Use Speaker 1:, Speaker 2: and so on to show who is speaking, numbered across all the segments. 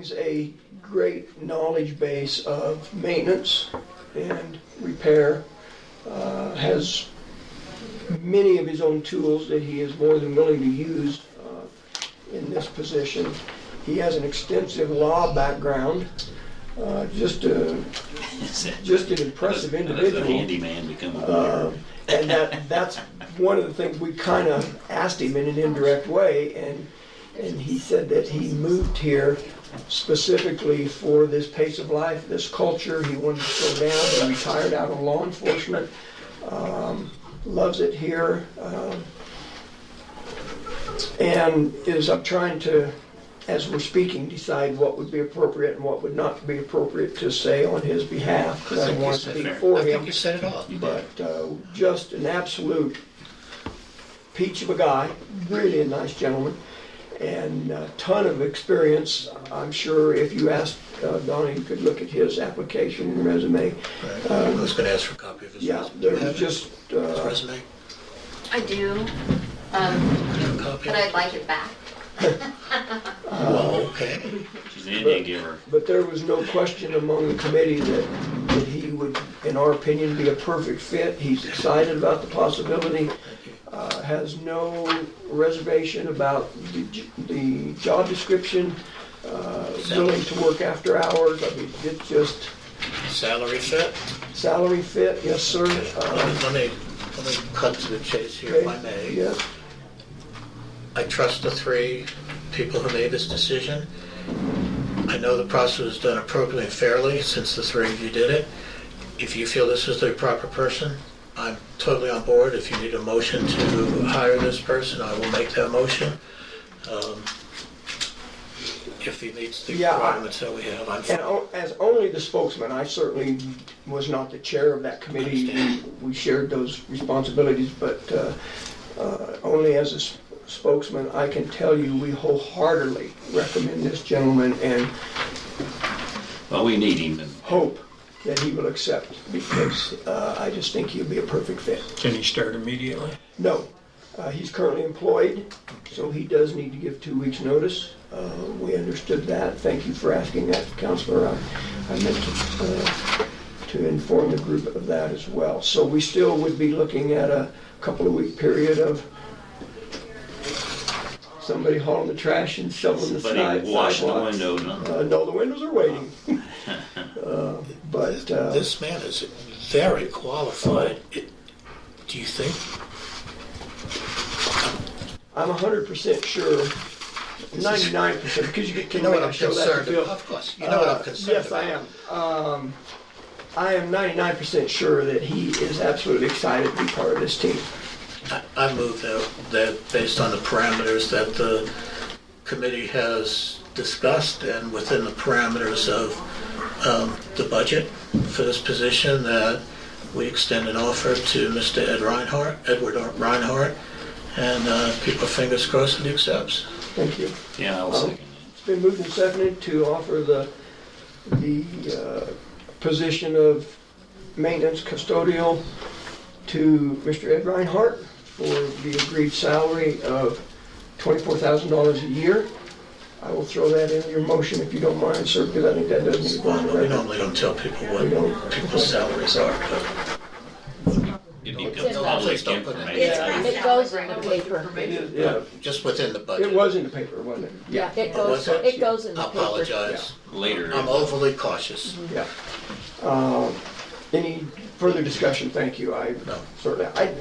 Speaker 1: brings a great knowledge base of maintenance and repair. Uh, has many of his own tools that he is more than willing to use uh, in this position. He has an extensive law background. Uh, just a, just an impressive
Speaker 2: Does the
Speaker 1: individual.
Speaker 2: handyman become a
Speaker 1: Uh,
Speaker 2: lawyer?
Speaker 1: and that that's one of the things we kind of asked him in an indirect way, and and he said that he moved here specifically for this pace of life, this culture. He wanted to slow down. He retired out of law enforcement. Um, loves it here, um, and is I'm trying to. As we're speaking, decide what would be appropriate and what would not be appropriate to say on his behalf, because I
Speaker 2: think
Speaker 1: want
Speaker 2: it's
Speaker 1: to speak
Speaker 2: fair.
Speaker 1: for
Speaker 3: I
Speaker 1: him
Speaker 3: think you said it all.
Speaker 1: but uh, just an absolute peach of a guy, really a nice gentleman, and a ton of experience. I'm sure if you asked uh, Donnie, you could look at his application and resume.
Speaker 3: Right. I was going to ask for a copy of his
Speaker 1: Uh, Yeah,
Speaker 3: resume.
Speaker 1: there
Speaker 3: Do you
Speaker 1: was
Speaker 3: have it?
Speaker 1: just,
Speaker 3: His
Speaker 1: uh,
Speaker 3: resume?
Speaker 4: I do, um,
Speaker 3: Do you have a copy?
Speaker 4: but I'd like it back.
Speaker 3: Well, okay.
Speaker 2: She's an Indian giver.
Speaker 1: but there was no question among the committee that, that he would, in our opinion, be a perfect fit. He's excited about the possibility. uh, has no reservation about the j- the job description, uh, willing to work after hours. I mean, it's just
Speaker 3: Salary fit?
Speaker 1: salary fit, yes, sir.
Speaker 3: Let
Speaker 1: Uh,
Speaker 3: me- let me, let me cut to the chase here if I may.
Speaker 1: Yes,
Speaker 3: I trust the three people who made this decision. I know the process was done appropriately and fairly since the three of you did it. If you feel this is the proper person, I'm totally on board. If you need a motion to hire this person, I will make that motion. Um, If he meets the
Speaker 1: Yeah, I-
Speaker 3: requirements that we have, I'm
Speaker 1: and o- as only the spokesman, I certainly was not the chair of that committee. We shared those responsibilities, but uh, uh, only as a s- spokesman, I can tell you, we wholeheartedly recommend this gentleman and
Speaker 2: Well, we need him. and-
Speaker 1: hope that he will accept because uh, I just think he'll be a perfect fit.
Speaker 5: Can he start immediately?
Speaker 1: No, uh, he's currently employed, so he does need to give two weeks' notice. Uh, we understood that. Thank you for asking that, Counselor. I, I meant to, uh, to inform the group of that as well. So we still would be looking at a couple of week period of somebody hauling the trash and shoveling the side,
Speaker 2: Somebody washing the
Speaker 1: sidewalks.
Speaker 2: window, no?
Speaker 1: Uh, no, the windows are waiting. Uh, But, uh,
Speaker 3: This man is very qualified. It- Do you think?
Speaker 1: I'm hundred percent sure, ninety-nine percent, because you get,
Speaker 3: You
Speaker 1: can
Speaker 3: know what
Speaker 1: I
Speaker 3: I'm
Speaker 1: show that
Speaker 3: concerned
Speaker 1: to Bill?
Speaker 3: about? Of course, you know what I'm
Speaker 1: Uh,
Speaker 3: concerned
Speaker 1: Yes, I
Speaker 3: about.
Speaker 1: am. Um, I am ninety-nine percent sure that he is absolutely excited to be part of this team.
Speaker 3: I move that, that based on the parameters that the committee has discussed and within the parameters of um, the budget for this position, that we extend an offer to Mr. Ed Reinhardt, Edward Reinhardt, and uh, keep our fingers crossed that he accepts.
Speaker 1: Thank you.
Speaker 2: Yeah, I'll second
Speaker 1: It's been moved and seconded to offer the, the uh, position of maintenance custodial to Mr. Ed Reinhardt for the agreed salary of $24,000 a year. I will throw that in your motion if you don't mind, sir, because I think that doesn't need to go on the
Speaker 3: Well, We
Speaker 1: record.
Speaker 3: normally don't tell people what people's salaries are, but
Speaker 2: it. It becomes
Speaker 6: Don't-
Speaker 2: public
Speaker 3: please don't put it-
Speaker 2: information.
Speaker 6: It's kind of- It goes in the paper.
Speaker 1: It is, yeah.
Speaker 3: just within the budget.
Speaker 1: It was in the paper, wasn't it?
Speaker 6: Yeah, it
Speaker 3: Oh, was
Speaker 6: goes,
Speaker 3: it?
Speaker 6: it goes in the
Speaker 3: I
Speaker 6: paper.
Speaker 3: apologize.
Speaker 2: Later,
Speaker 3: I'm overly cautious.
Speaker 1: Yeah. Um, Any further discussion? Thank you. I
Speaker 3: No.
Speaker 1: certainly, I,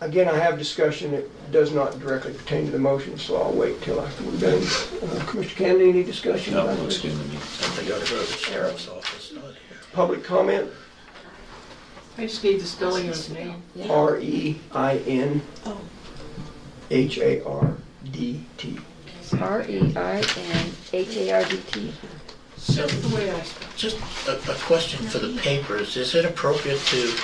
Speaker 1: again, I have discussion that does not directly pertain to the motion, so I'll wait till after we're done. Uh, Commissioner Kennedy, any discussion?
Speaker 2: no,
Speaker 1: about
Speaker 2: it looks
Speaker 1: this?
Speaker 2: good to me.
Speaker 3: They gotta go to the sheriff's office, not here.
Speaker 1: Public comment,
Speaker 7: I just need the spelling of his name.
Speaker 6: Yeah.
Speaker 1: R E I N H A R D T.
Speaker 6: R E I N H A R D T.
Speaker 7: That's the way I spell
Speaker 3: Just a, a question for the papers, is it appropriate to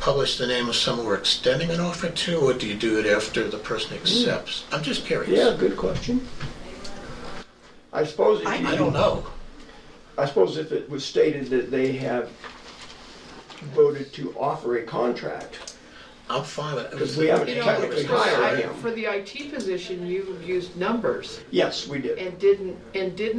Speaker 3: publish the name of someone we're extending an offer to, or do you do it after the person accepts? I'm just
Speaker 1: Mm. Yeah,
Speaker 3: curious.
Speaker 1: good question. I suppose if you.
Speaker 3: I don't know.
Speaker 1: I suppose if it was stated that they have voted to offer a contract,
Speaker 3: I'm fine with it.
Speaker 1: Because we haven't
Speaker 7: You know,
Speaker 1: Technically
Speaker 7: for
Speaker 1: higher
Speaker 7: I-
Speaker 1: him.
Speaker 7: For the IT position, you used numbers
Speaker 1: Yes, we did.
Speaker 7: and didn't, and did